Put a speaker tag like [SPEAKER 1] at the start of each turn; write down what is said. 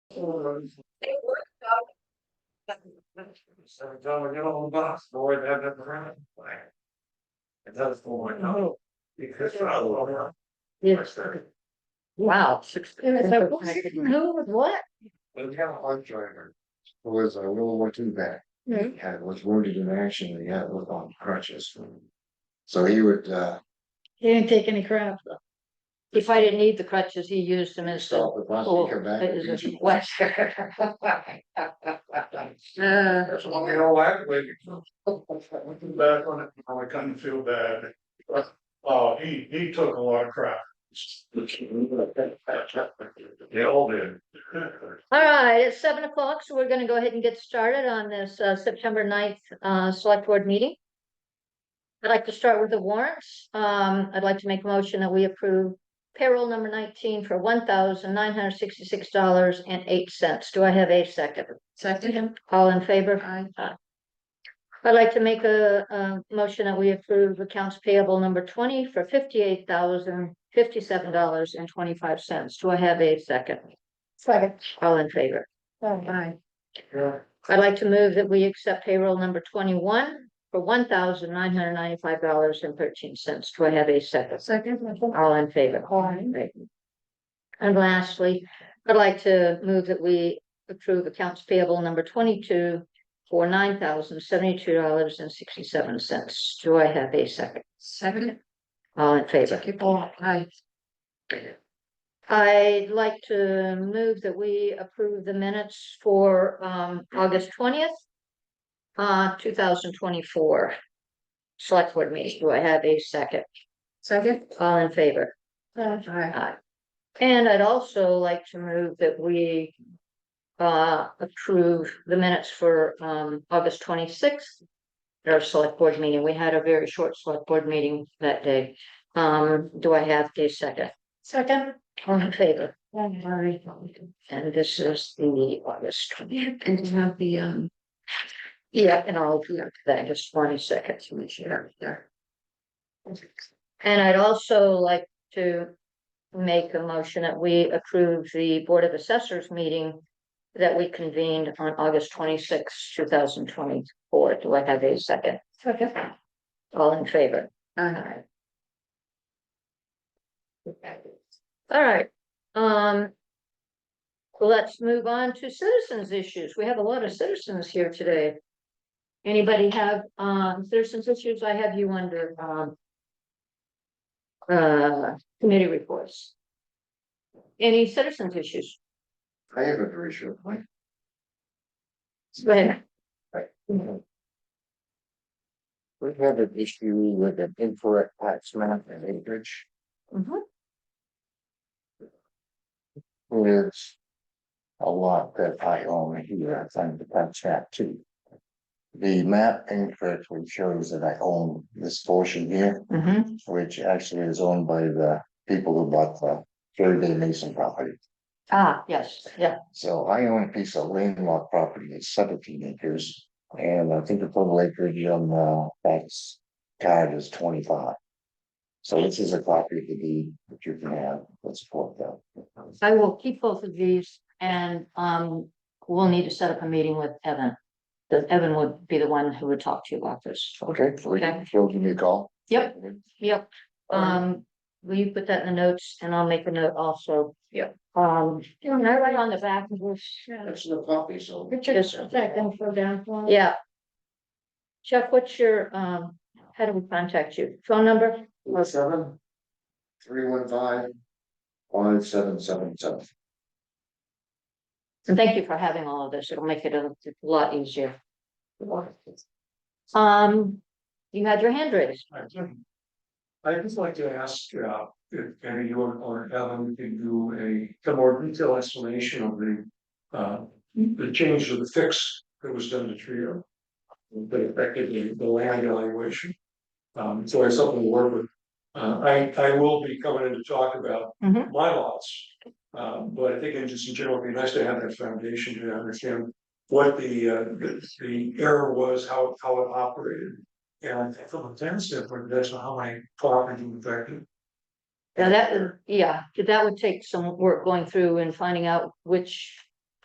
[SPEAKER 1] They work out.
[SPEAKER 2] So John, we get a little box, boy, that that around. It does for my no. Because I love her.
[SPEAKER 3] Yes. Wow. Who was what?
[SPEAKER 2] But we had a hard driver. Who was a World War II vet.
[SPEAKER 3] Hmm.
[SPEAKER 2] He had was wounded in action. and He had was on crutches. So he would uh
[SPEAKER 3] He didn't take any crap. If I didn't need the crutches, he used them instead.
[SPEAKER 2] stop the bus
[SPEAKER 3] Oh,
[SPEAKER 2] and come back.
[SPEAKER 3] that
[SPEAKER 2] and
[SPEAKER 3] is
[SPEAKER 2] beat
[SPEAKER 3] a
[SPEAKER 2] you.
[SPEAKER 3] question. Uh,
[SPEAKER 2] That's why we all have it. Back on it, I couldn't feel bad. uh,
[SPEAKER 4] Oh, he, he took a lot of crap.
[SPEAKER 2] They all did.
[SPEAKER 3] All right, it's seven o'clock, so we're gonna go ahead and get started on this uh September 9th uh select board meeting. I'd like to start with the warrants. Um, I'd like to make a motion that we approve payroll number nineteen for one thousand nine hundred sixty-six dollars and eight cents. Do I have a second?
[SPEAKER 1] Second,
[SPEAKER 3] All in favor?
[SPEAKER 1] I,
[SPEAKER 3] I'd like to make a a motion that we approve accounts payable number twenty for fifty-eight thousand fifty-seven dollars and twenty-five cents. Do I have a second?
[SPEAKER 1] second,
[SPEAKER 3] All in favor?
[SPEAKER 1] I,
[SPEAKER 3] I'd like to move that we accept payroll number twenty-one for one thousand nine hundred ninety-five dollars and thirteen cents. Do I have a second?
[SPEAKER 1] second,
[SPEAKER 3] All in favor?
[SPEAKER 1] Aye.
[SPEAKER 3] Right. And lastly, I'd like to move that we approve accounts payable number twenty-two for nine thousand seventy-two dollars and sixty-seven cents. Do I have a second?
[SPEAKER 1] second,
[SPEAKER 3] All in favor?
[SPEAKER 1] I,
[SPEAKER 3] I'd like to move that we approve the minutes for um August twentieth. Uh, two thousand twenty-four. Select board meeting, do I have a second?
[SPEAKER 1] second,
[SPEAKER 3] All in favor?
[SPEAKER 1] I,
[SPEAKER 3] Aye. And I'd also like to move that we. Uh, approve the minutes for um August twenty-sixth. Our select board meeting, we had a very short select board meeting that day. Um, do I have a second?
[SPEAKER 1] second.
[SPEAKER 3] All in favor?
[SPEAKER 1] I,
[SPEAKER 3] And this is the August twentieth.
[SPEAKER 1] and you have the, um,
[SPEAKER 3] Yeah, and I'll do that, just twenty seconds, to make sure.
[SPEAKER 1] there.
[SPEAKER 3] And I'd also like to make a motion that we approve the Board of Assessors meeting that we convened on August twenty-sixth, two thousand twenty-four. Do I have a second?
[SPEAKER 1] second,
[SPEAKER 3] All in favor?
[SPEAKER 1] I,
[SPEAKER 3] All right, um. Let's move on to citizens issues. We have a lot of citizens here today. Anybody have, um, citizens issues? I have you under, um. Uh, committee reports. Any citizens issues?
[SPEAKER 2] I have a very short point.
[SPEAKER 3] Go ahead.
[SPEAKER 2] We have an issue with an incorrect tax map and acreage.
[SPEAKER 3] Mhm.
[SPEAKER 2] There's a lot that I own here, I think the tax map too. The map incorrectly shows that I own this portion here,
[SPEAKER 3] Mhm.
[SPEAKER 2] which actually is owned by the people who bought the third day Mason property.
[SPEAKER 3] Ah, yes, yeah,
[SPEAKER 2] So I own a piece of landlocked property, it's seventeen acres, and I think the total acreage on the tax card is twenty-five. So this is a copy of the deed that you can have, let's support that.
[SPEAKER 3] I will keep both of these and, um, we'll need to set up a meeting with Evan. That Evan would be the one who would talk to you about this.
[SPEAKER 2] Okay, so we
[SPEAKER 3] Okay.
[SPEAKER 2] can, she'll give me a call.
[SPEAKER 3] Yep. Yep,
[SPEAKER 2] Alright.
[SPEAKER 3] um, will you put that in the notes and I'll make a note also? Yep. Um, you know, right on the back of this.
[SPEAKER 2] That's the copy, so.
[SPEAKER 3] Richard, is that gonna
[SPEAKER 1] go down for? Yeah.
[SPEAKER 3] Yeah. Chuck, what's your, um, how do we contact you? Phone number?
[SPEAKER 2] Four seven. Three one five. One seven seven seven.
[SPEAKER 3] And thank you for having all of this. It'll make it a lot easier. Um, you had your hand raised.
[SPEAKER 4] I'd just like to ask, uh, if any or, or Evan can do a, a more detailed explanation of the. Uh, the change of the fix that was done to Trio. That affected the, the land valuation. Um, so I have something to work with. Uh, I, I will be coming in to talk about
[SPEAKER 3] Mhm.
[SPEAKER 4] my lots. Uh, but I think in just in general, it'd be nice to have that foundation to understand what the, uh, the, the error was, how, how it operated. And from a tenant standpoint, that's how my property was affected.
[SPEAKER 3] Now that, yeah, that would take some work going through and finding out which